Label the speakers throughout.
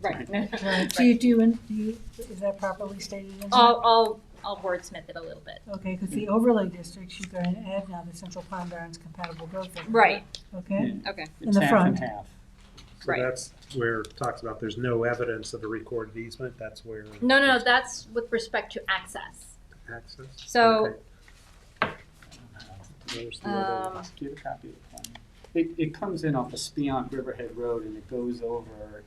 Speaker 1: Right.
Speaker 2: Do you, do you, in- do you, is that properly stated in there?
Speaker 1: I'll, I'll, I'll wordsmith it a little bit.
Speaker 2: Okay, because the overlay districts, you've got an ad now, the Central Pond Gardens compatible growth area.
Speaker 1: Right,
Speaker 2: Okay,
Speaker 1: okay,
Speaker 2: In the front.
Speaker 3: It's half and half.
Speaker 4: So
Speaker 1: right.
Speaker 4: that's where it talks about there's no evidence of a recorded easement, that's where
Speaker 1: No, no, no, that's with respect to access.
Speaker 4: access.
Speaker 1: So-
Speaker 4: Okay.
Speaker 3: There's the other,
Speaker 1: Um,
Speaker 3: do you have a copy of the plan? It, it comes in off of Speonk Riverhead Road and it goes over a,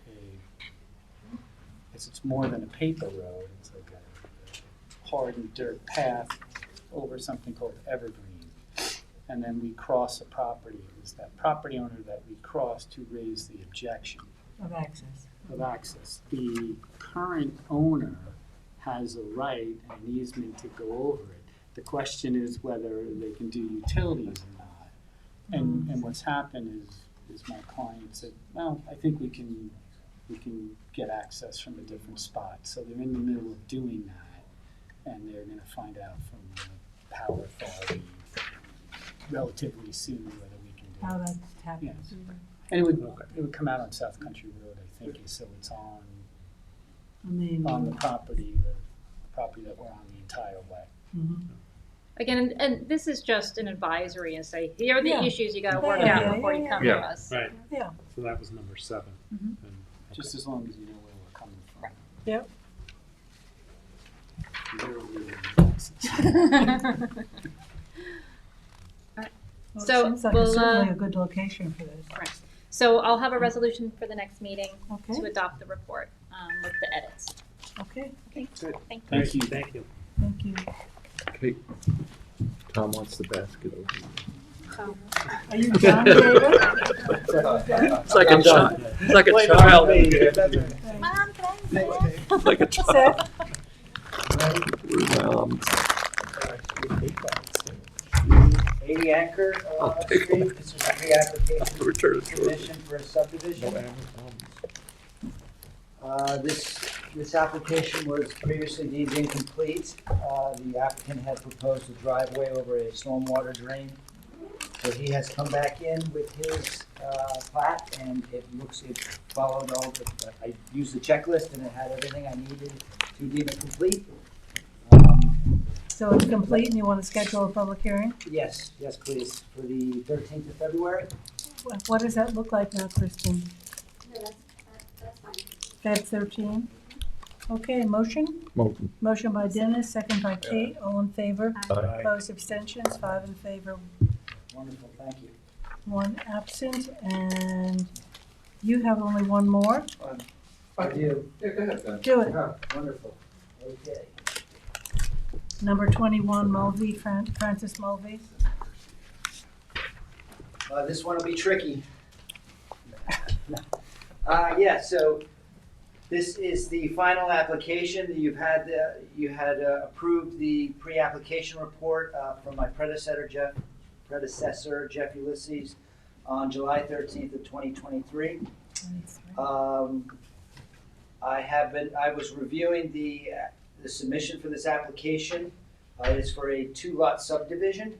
Speaker 3: it's, it's more than a paper road, it's like a hardened dirt path over something called Evergreen. And then we cross a property, it was that property owner that we crossed who raised the objection
Speaker 2: of access.
Speaker 3: of access. The current owner has a right and an easement to go over it. The question is whether they can do utilities or not. And, and what's happened is, is my client said, well, I think we can, we can get access from a different spot. So they're in the middle of doing that, and they're gonna find out from the power authority relatively soon whether we can do it.
Speaker 2: How that happens.
Speaker 3: And it would, it would come out on South Country Road, I think, so it's on,
Speaker 2: I mean,
Speaker 3: on the property, the property that we're on the entire way.
Speaker 2: mhm.
Speaker 1: Again, and- and this is just an advisory and say, here are
Speaker 2: Yeah.
Speaker 1: the issues you gotta
Speaker 2: Yeah,
Speaker 1: work
Speaker 2: yeah,
Speaker 1: out
Speaker 2: yeah,
Speaker 1: before you
Speaker 2: yeah,
Speaker 1: come
Speaker 5: yeah.
Speaker 1: to us.
Speaker 4: Right,
Speaker 2: yeah,
Speaker 4: so that was number seven.
Speaker 1: Mhm.
Speaker 4: And-
Speaker 3: Just as long as you know where we're coming from.
Speaker 2: Yep.
Speaker 3: Zero real access.
Speaker 2: well,
Speaker 1: So,
Speaker 2: it seems like
Speaker 1: we'll,
Speaker 2: it's
Speaker 1: uh,
Speaker 2: certainly a good location for this,
Speaker 1: So I'll have a resolution for the next meeting
Speaker 2: okay,
Speaker 1: to adopt the report, um, with the edits.
Speaker 2: okay,
Speaker 1: Okay,
Speaker 4: Good.
Speaker 1: thank you.
Speaker 3: Thank you.
Speaker 4: Thank you.
Speaker 2: thank you.
Speaker 5: Hey, Tom wants the basket. open.
Speaker 2: Are you John David?
Speaker 5: It's like a child, it's like a child, it's
Speaker 1: Mom, can I
Speaker 5: like a
Speaker 2: Seth?
Speaker 5: child. Um,
Speaker 6: Eighty acre, uh,
Speaker 5: I'll take
Speaker 6: street, this is a pre-application
Speaker 5: Return to Georgia.
Speaker 6: submission for a subdivision. Uh, this, this application was previously deemed incomplete. Uh, the applicant had proposed a driveway over a stormwater drain. So he has come back in with his, uh, plat and it looks, it followed all the, I used the checklist and it had everything I needed to deem it complete. Um,
Speaker 2: So it's complete and you want to schedule a public hearing?
Speaker 6: Yes, yes, please, for the thirteenth of February.
Speaker 2: Wha- What does that look like now, Kristen? That's thirteen? Okay, motion?
Speaker 5: Motion.
Speaker 2: Motion by Dennis, second by Kate, all in favor?
Speaker 5: Aye.
Speaker 2: Opposed, abstentions, five in favor,
Speaker 6: Wonderful, thank you.
Speaker 2: one absent, and you have only one more?
Speaker 6: I do.
Speaker 2: Do it.
Speaker 6: Wonderful. Okay.
Speaker 2: Number twenty-one, Mulvey, Fran- Francis Mulvey.
Speaker 6: Uh, this one will be tricky. Uh, yeah, so this is the final application. You've had, uh, you had uh, approved the pre-application report uh, from my predecessor Jeff, predecessor Jeff Ulysses on July thirteenth of twenty twenty-three. Um, I have been, I was reviewing the, uh, the submission for this application. Uh, it's for a two-lot subdivision.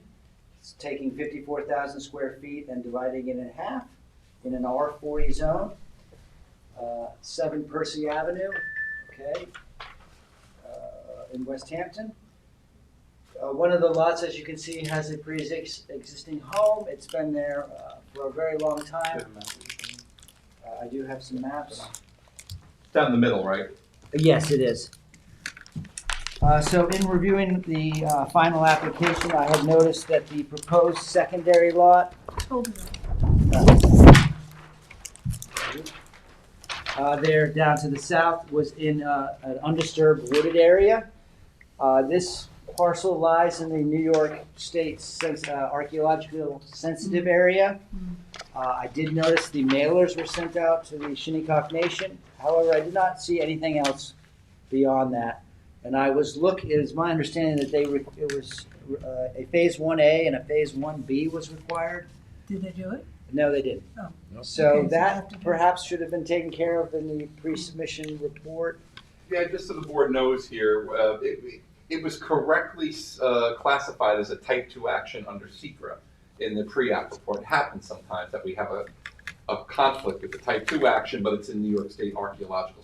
Speaker 6: It's taking fifty-four thousand square feet and dividing it in half in an R forty zone. Uh, seven Percy Avenue, okay, uh, in West Hampton. Uh, one of the lots, as you can see, has a pre-existing home. It's been there, uh, for a very long time. Uh, I do have some maps.
Speaker 7: Down the middle, right?
Speaker 6: Yes, it is. Uh, so in reviewing the, uh, final application, I had noticed that the proposed secondary lot
Speaker 2: Told you.
Speaker 6: uh, there down to the south was in uh, an undisturbed wooded area. Uh, This parcel lies in the New York State Sens- uh, Archaeological Sensitive Area. Uh, I did notice the mailers were sent out to the Shinnecock Nation. However, I did not see anything else beyond that. And I was look, it is my understanding that they, re- it was uh, a Phase 1A and a Phase 1B was required.
Speaker 2: Did they do it?
Speaker 6: No, they didn't.
Speaker 2: Oh. Okay,
Speaker 6: So
Speaker 2: so
Speaker 6: that
Speaker 2: after that-
Speaker 6: perhaps should have been taken care of in the pre-submission report.
Speaker 7: Yeah, just so the board knows here, uh, it, it was correctly uh, classified as a type two action under secra in the pre-app report. It happens sometimes that we have a, a conflict with the type two action, but it's in New York State Archaeological